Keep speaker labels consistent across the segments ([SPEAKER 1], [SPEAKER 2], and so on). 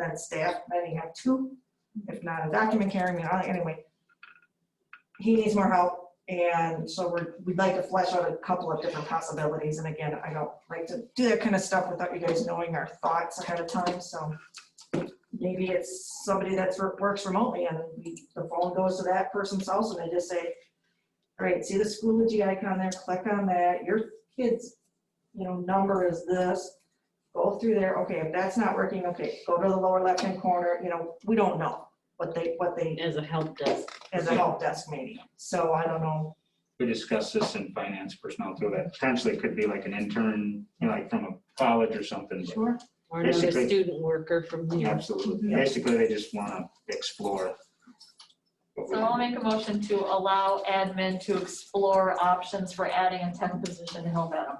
[SPEAKER 1] then staff, then you have two, if not a document carrying, me out, anyway. He needs more help, and so we're, we'd like to flesh out a couple of different possibilities, and again, I don't like to do that kind of stuff without you guys knowing our thoughts ahead of time, so. Maybe it's somebody that's, re- works remotely, and we, the phone goes to that person's house, and they just say, all right, see the Schoology icon there, click on that, your kid's, you know, number is this, go through there, okay, if that's not working, okay, go to the lower left-hand corner, you know, we don't know what they, what they,
[SPEAKER 2] as a help desk.
[SPEAKER 1] as a help desk maybe, so I don't know.
[SPEAKER 3] we discussed this in finance personnel too, that potentially could be like an intern, you know, like from a college or something. but
[SPEAKER 1] Sure.
[SPEAKER 2] Or another
[SPEAKER 3] Basically.
[SPEAKER 2] student worker from here.
[SPEAKER 3] Absolutely. Basically, they just want to explore. what we
[SPEAKER 4] So I'll make a motion to allow admin to explore options for adding a tenth position to help Adam.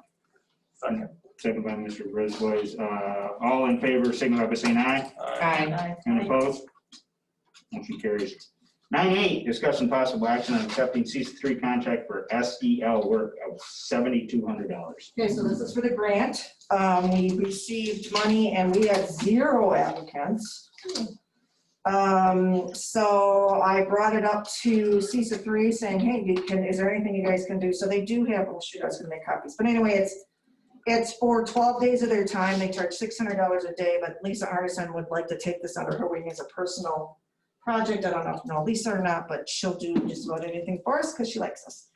[SPEAKER 3] Second. Second by Mr. Brisbois. Uh, All in favor, signify by saying aye.
[SPEAKER 2] Aye.
[SPEAKER 3] And opposed? Motion carries. Nine eight, discuss and possible action on accepting CC three contract for SEL work of seventy-two hundred dollars.
[SPEAKER 1] Okay, so this is for the grant. Um, we received money and we had zero applicants. Um, so I brought it up to CISA three saying, hey, you can, is there anything you guys can do? So they do have, oh shoot, I was gonna make copies, but anyway, it's, it's for twelve days of their time. They charge six hundred dollars a day, but Lisa Artisan would like to take this under her wing as a personal project. I don't know if you know Lisa or not, but she'll do just about anything for us because she likes us.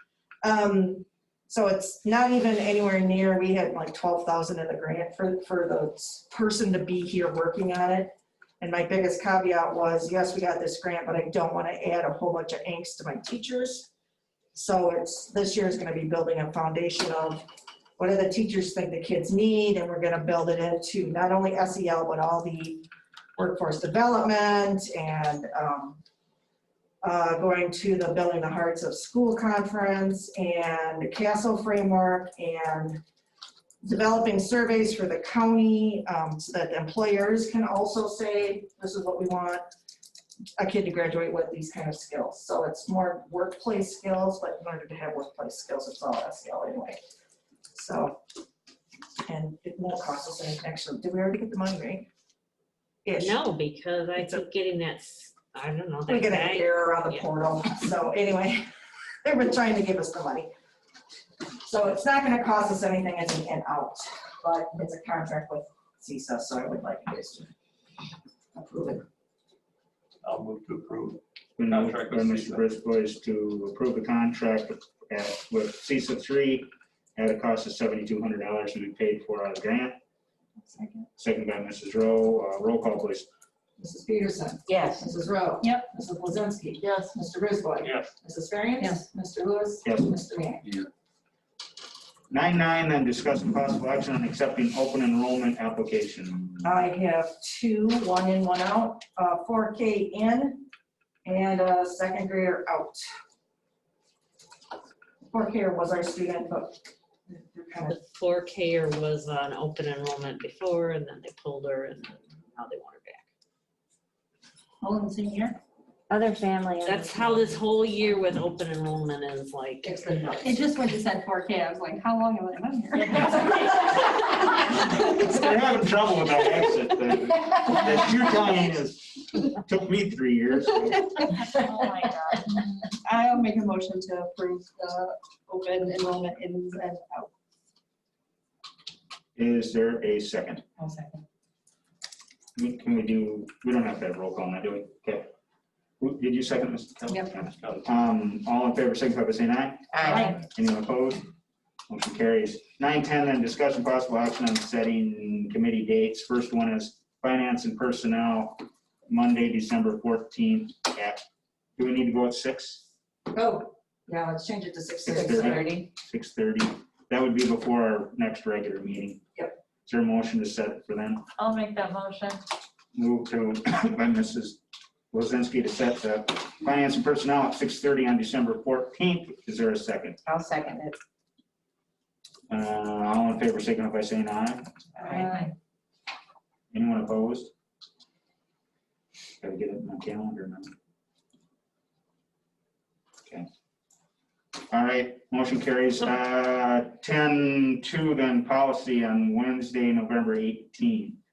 [SPEAKER 1] Um, so it's not even anywhere near, we had like twelve thousand in the grant for, for the s- person to be here working on it. And my biggest caveat was, yes, we got this grant, but I don't want to add a whole bunch of angst to my teachers. So it's, this year is going to be building a foundation of what do the teachers think the kids need? And we're going to build it into not only SEL, but all the workforce development and, um, uh, going to the Building the Hearts of School Conference and the Castle Framework and developing surveys for the county um, so that employers can also say, this is what we want a kid to graduate with these kind of skills. So it's more workplace skills, but in order to have workplace skills, it's all SEL anyway. So, and it won't cost us anything. Actually, did we already get the money, right? Ish.
[SPEAKER 2] No, because I
[SPEAKER 1] It's a-
[SPEAKER 2] keep getting that, s- I don't know.
[SPEAKER 1] We
[SPEAKER 2] that
[SPEAKER 1] get an
[SPEAKER 2] guy-
[SPEAKER 1] error on the
[SPEAKER 2] yeah.
[SPEAKER 1] portal, so anyway, they've been trying to give us the money. So it's not gonna cost us anything as an in-out, but it's a contract with CISA, so I would like you guys to approve it.
[SPEAKER 5] I'll move to approve.
[SPEAKER 3] Been moved by
[SPEAKER 5] Contract with
[SPEAKER 3] Mr. Brisbois to approve the contract at- with CISA three at a cost of seventy-two hundred dollars to be paid for out of grant. Second by Mrs. Rowe. Uh, Roll call, please.
[SPEAKER 6] Mrs. Peterson.
[SPEAKER 2] Yes,
[SPEAKER 6] Mrs. Rowe.
[SPEAKER 4] Yep.
[SPEAKER 6] Mrs. Blazinski.
[SPEAKER 4] Yes.
[SPEAKER 6] Mr. Brisboy.
[SPEAKER 5] Yes.
[SPEAKER 6] Mrs. Ferriant.
[SPEAKER 2] Yes.
[SPEAKER 6] Mr. Lewis.
[SPEAKER 3] Yes.
[SPEAKER 6] Mr. Manning.
[SPEAKER 3] Nine nine, then discuss and possible action on accepting open enrollment application.
[SPEAKER 1] I have two, one in, one out, uh, four K in, and a second grader out. Four K was our student, but they're kind of,
[SPEAKER 2] the four K er was on open enrollment before and then they pulled her and then now they want her back.
[SPEAKER 7] Other family.
[SPEAKER 2] That's how this whole year with open enrollment is like.
[SPEAKER 6] It's been nuts.
[SPEAKER 8] It just when you said four K, I was like, how long have I been
[SPEAKER 3] They're
[SPEAKER 8] here?
[SPEAKER 3] having trouble with that exit thing. That two time is, took me three years. so
[SPEAKER 4] Oh my God.
[SPEAKER 8] I'll make a motion to approve the open enrollment ins and out.
[SPEAKER 3] Is there a second?
[SPEAKER 6] I'll second.
[SPEAKER 3] We- Can we do, we don't have to have roll call now, do we? Okay. Who- Did you second this?
[SPEAKER 5] Yep.
[SPEAKER 3] Um, all in favor, signify by saying aye. Anyone opposed? Motion carries. Nine ten, then discussion possible action on setting committee dates. First one is finance and personnel, Monday, December fourteenth at, do we need to go at six?
[SPEAKER 6] Oh, yeah, let's change it to six
[SPEAKER 3] Six
[SPEAKER 6] thirty.
[SPEAKER 3] Six thirty? That would be before our next regular meeting. Yep. Is there a motion to set for then?
[SPEAKER 4] I'll make that motion.
[SPEAKER 3] Move to, by Mrs. Lozinski to set the finance and personnel at six thirty on December fourteenth. Is there a second?
[SPEAKER 6] I'll second it.
[SPEAKER 3] Uh, all in favor, signify by saying aye.
[SPEAKER 1] Uh,
[SPEAKER 6] Aye.
[SPEAKER 3] Anyone opposed? Gotta get it in my calendar now. Okay. All right, motion carries. Uh, ten two then policy on Wednesday, November eighteen.